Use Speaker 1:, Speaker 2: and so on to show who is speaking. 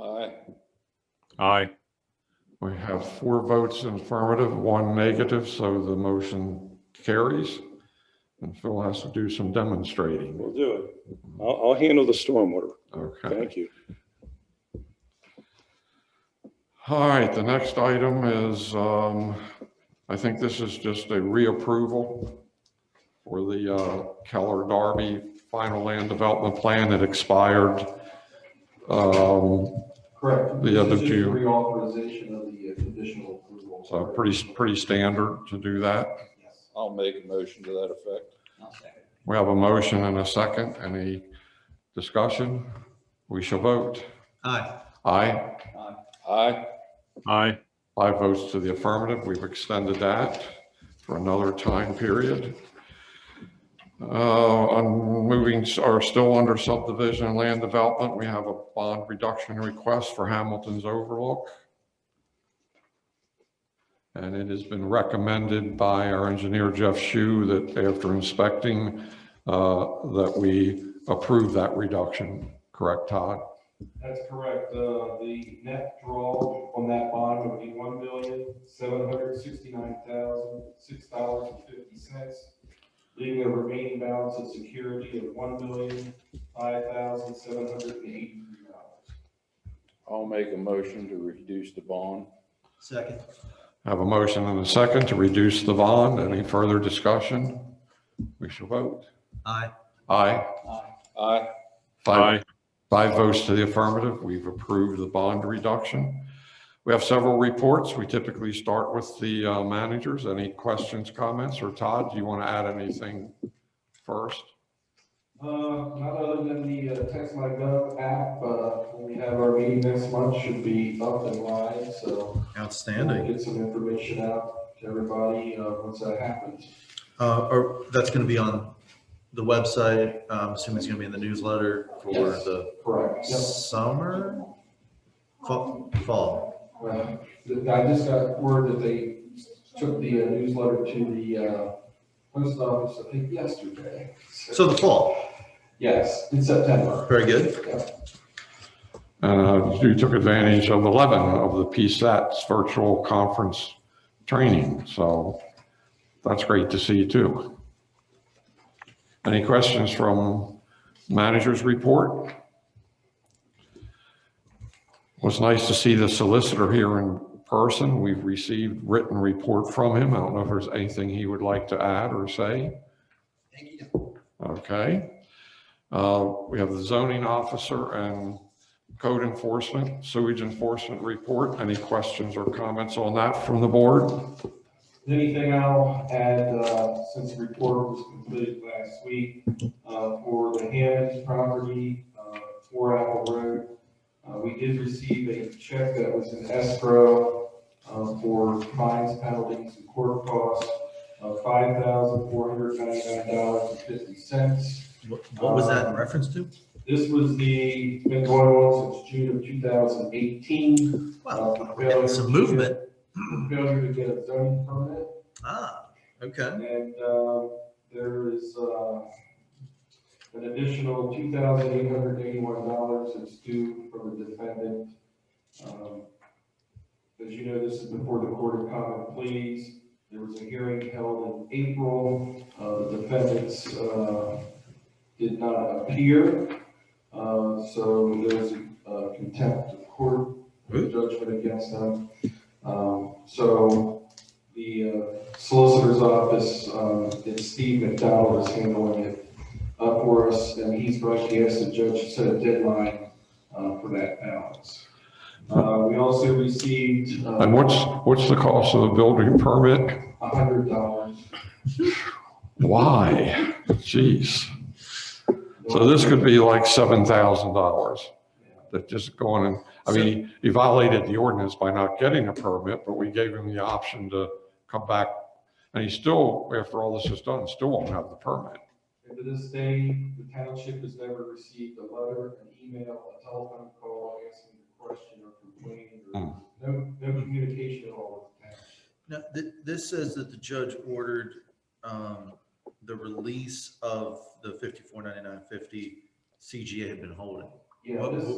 Speaker 1: Aye.
Speaker 2: Aye.
Speaker 3: We have four votes in affirmative, one negative, so the motion carries. And Phil has to do some demonstrating.
Speaker 1: We'll do it. I'll, I'll handle the stormwater.
Speaker 3: Okay.
Speaker 1: Thank you.
Speaker 3: All right, the next item is, um, I think this is just a reapproval for the uh, Keller Darby final land development plan that expired. um,
Speaker 4: Correct.
Speaker 3: The other
Speaker 4: This is just
Speaker 3: two.
Speaker 4: Reauthorization of the uh, conditional approval.
Speaker 3: So pretty, pretty standard to do that.
Speaker 4: Yes.
Speaker 1: I'll make a motion to that effect.
Speaker 4: I'll second.
Speaker 3: We have a motion and a second. Any discussion? We shall vote.
Speaker 4: Aye.
Speaker 3: Aye.
Speaker 4: Aye.
Speaker 1: Aye.
Speaker 2: Aye.
Speaker 3: Five votes to the affirmative. We've extended that for another time period. Uh, On moving, are still under subdivision and land development, we have a bond reduction request for Hamilton's Overlook. And it has been recommended by our engineer Jeff Shue that after inspecting, uh, that we approve that reduction. Correct, Todd?
Speaker 5: That's correct. Uh, The net draw on that bond would be one million, seven hundred sixty-nine thousand, six dollars and fifty cents, leaving a remaining balance of security of one million, five thousand, seven hundred and eighty-three dollars.
Speaker 1: I'll make a motion to reduce the bond.
Speaker 4: Second.
Speaker 3: Have a motion and a second to reduce the bond. Any further discussion? We shall vote.
Speaker 4: Aye.
Speaker 3: Aye.
Speaker 1: Aye.
Speaker 3: Five- Five votes to the affirmative. We've approved the bond reduction. We have several reports. We typically start with the uh, managers. Any questions, comments, or Todd, do you want to add anything first?
Speaker 5: Uh, not other than the uh, text my gov app, uh, when we have our meeting next month, should be up and live, so.
Speaker 6: Outstanding.
Speaker 5: we'll Get some information out to everybody, uh, once that happens.
Speaker 6: Uh, or that's gonna be on the website, I'm assuming it's gonna be in the newsletter for
Speaker 5: Yes.
Speaker 6: the
Speaker 5: Correct. Yep.
Speaker 6: summer? Fall, fall,
Speaker 5: Well, th- I just got word that they took the uh, newsletter to the uh, post office, I think yesterday.
Speaker 6: so the fall,
Speaker 5: Yes, in September.
Speaker 6: very good.
Speaker 3: Uh, You took advantage of 11 of the PSAT's virtual conference training, so that's great to see too. Any questions from manager's report? Was nice to see the solicitor here in person. We've received written report from him. I don't know if there's anything he would like to add or say.
Speaker 4: Thank you.
Speaker 3: Okay. Uh, We have the zoning officer and code enforcement, sewage enforcement report. Any questions or comments on that from the board?
Speaker 5: Anything I'll add, uh, since the report was completed last week, uh, for the Hammond property, uh, for Apple Road, uh, we did receive a check that was in escrow, uh, for fines, penalties, and court costs of five thousand four hundred ninety-nine dollars and fifty cents.
Speaker 6: What what was that in reference to?
Speaker 5: This was the, been going on since June of 2018. Uh,
Speaker 6: Wow, we're getting some movement,
Speaker 5: Failure to get a zoning permit,
Speaker 6: ah, okay,
Speaker 5: and uh, there is uh, an additional $2,881 that's due from the defendant. Um, As you know, this is before the Court of Common Pleas. There was a hearing held in April. Uh, The defendants uh, did not appear. Uh, So there's uh, contempt of court judgment against them. Um, So the uh, solicitor's office, um, it's Steve McDowell is handling it uh, for us, and he's right, he asked the judge to set a deadline uh, for that balance. Uh, We also received uh,
Speaker 3: And what's, what's the cost of the building permit?
Speaker 5: a hundred dollars.
Speaker 3: Why? Jeez. So this could be like $7,000 that just going and, I mean, he violated the ordinance by not getting a permit, but we gave him the option to come back. And he still, after all this is done, still won't have the permit.
Speaker 5: And to this day, the township has never received a letter, an email, a telephone call asking a question or complaining or no, no communication at all with the township.
Speaker 6: now, th- this says that the judge ordered, um, the release of the fifty-four ninety-nine fifty CGA had been holding.
Speaker 5: Yeah, this